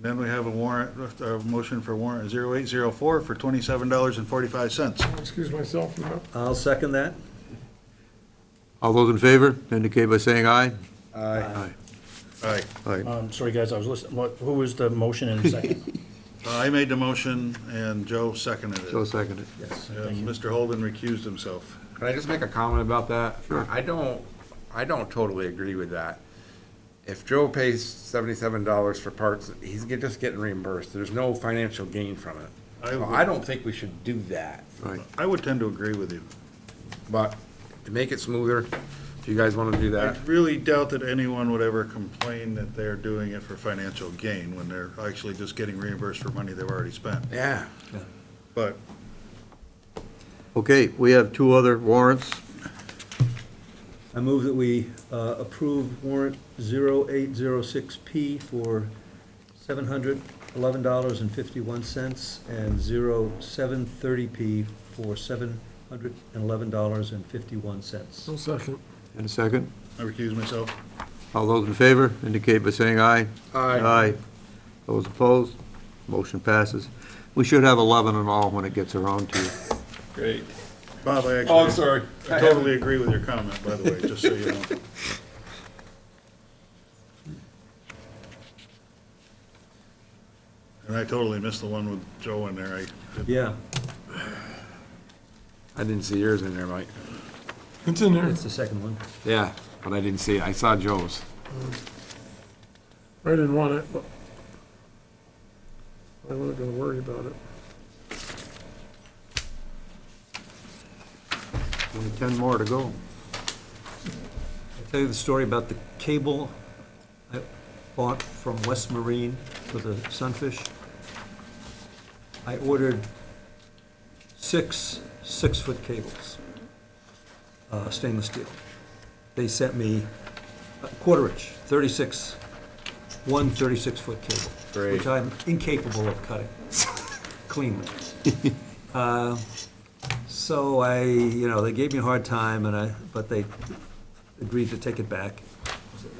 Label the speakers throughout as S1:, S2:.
S1: Then we have a warrant, a motion for warrant 0804 for $27.45.
S2: Excuse myself from that.
S3: I'll second that.
S4: All those in favor indicate by saying aye. Aye.
S1: Aye.
S4: Aye.
S5: Um, sorry, guys, I was listening, what, who was the motion in second?
S1: Uh, I made the motion and Joe seconded it.
S4: So seconded.
S5: Yes.
S1: And Mr. Holden recused himself.
S6: Can I just make a comment about that?
S4: Sure.
S6: I don't, I don't totally agree with that. If Joe pays seventy-seven dollars for parts, he's get- just getting reimbursed. There's no financial gain from it.
S1: I would-
S6: I don't think we should do that,
S4: Right.
S1: I would tend to agree with you.
S6: but to make it smoother, if you guys wanna do
S1: I
S6: that,
S1: really doubt that anyone would ever complain that they're doing it for financial gain when they're actually just getting reimbursed for money they've already spent.
S6: yeah.
S1: But
S4: Okay, we have two other warrants.
S3: I move that we uh, approve warrant 0806P for $711.51 and 0730P for $711.51.
S2: I'll second.
S4: And a second.
S1: I recuse myself.
S4: All those in favor indicate by saying aye.
S6: Aye.
S4: Aye. Those opposed? Motion passes. We should have 11 in all when it gets around to you.
S6: Great.
S1: Bob, I
S6: Oh, I'm
S1: actually,
S6: sorry.
S1: I totally agree with your comment, by the way, just so you know. And I totally missed the one with Joe in there. I,
S3: Yeah,
S6: I didn't see yours in there, Mike.
S2: It's in there,
S3: that's the second one.
S6: Yeah, but I didn't see it. I saw Joe's.
S2: I didn't want it, but I wasn't gonna worry about it.
S4: Only 10 more to go.
S3: I'll tell you the story about the cable I bought from West Marine for the sunfish. I ordered six six-foot cables, uh, stainless steel. They sent me a quarter inch, 36, one 36-foot cable.
S6: Great.
S3: Which I'm incapable of cutting cleanly. Uh, So I, you know, they gave me a hard time and I, but they agreed to take it back.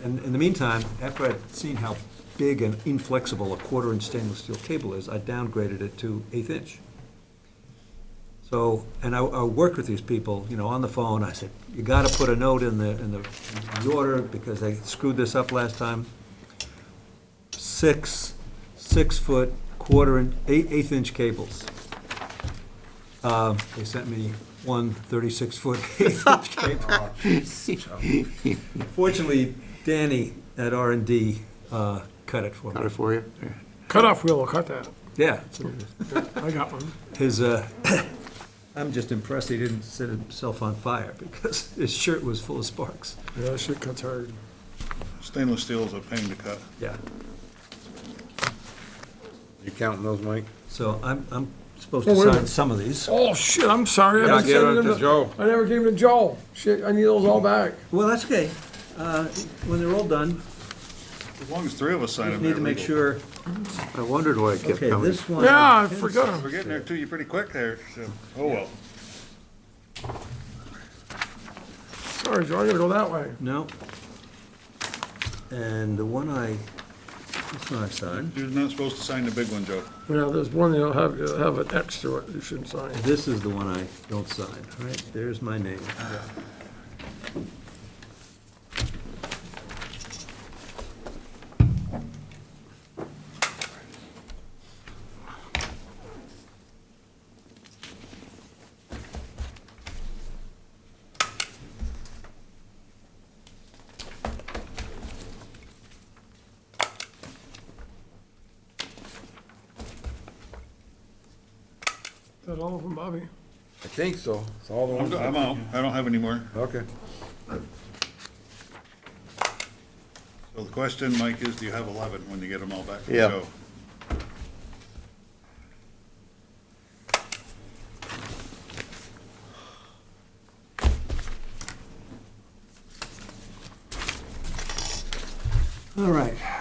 S3: And in the meantime, after I'd seen how big and inflexible a quarter-inch stainless steel cable is, I downgraded it to eighth-inch. So, and I, I worked with these people, you know, on the phone, I said, you gotta put a note in the, in the, in the order, because they screwed this up last time. Six, six-foot, quarter-inch, eight, eighth-inch cables. Uh, they sent me one 36 foot eighth-inch cable. Fortunately, Danny at R and D, uh, cut it for
S4: Got it
S3: me.
S4: for you? Yeah.
S2: Cutoff wheel will cut that.
S3: Yeah, so
S2: I got one.
S3: his, uh, I'm just impressed he didn't set himself on fire because his shirt was full of sparks.
S2: Yeah, that shit cuts hard.
S1: stainless steel is a pain to cut.
S3: Yeah.
S6: You counting those, Mike?
S3: So I'm, I'm supposed
S2: Oh,
S3: to
S2: wait a
S3: sign
S2: minute.
S3: some of these.
S2: Oh, shit, I'm sorry. I
S6: Yeah,
S2: never
S6: give
S2: sent
S6: it
S2: them
S6: to Joe.
S2: I never gave them to Joe. Shit, I need those all back.
S3: Well, that's okay. Uh, When they're all done,
S1: As long as three of us sign
S3: you
S1: them.
S3: need
S1: they're
S3: to make
S1: legal.
S3: sure,
S4: I wondered why it kept
S3: okay,
S4: coming.
S3: this one.
S2: Yeah, I forgot 'em.
S1: We're getting there too, you're pretty quick there. so- Oh, well.
S2: Sorry, Joe, I gotta go that way.
S3: No. And the one I, this one I signed,
S1: You're not supposed to sign the big one, Joe.
S2: Yeah, there's one that'll have, it'll have an X to it. You shouldn't sign.
S3: this is the one I don't sign. All right, there's my name.
S2: Is that all of them, Bobby?
S6: I think so. It's all the
S1: I'm
S6: ones.
S1: I'm out, I don't have any more.
S6: Okay.
S1: So the question, Mike, is do you have 11 when you get them all back from
S4: Yeah.
S1: Joe?
S3: All right,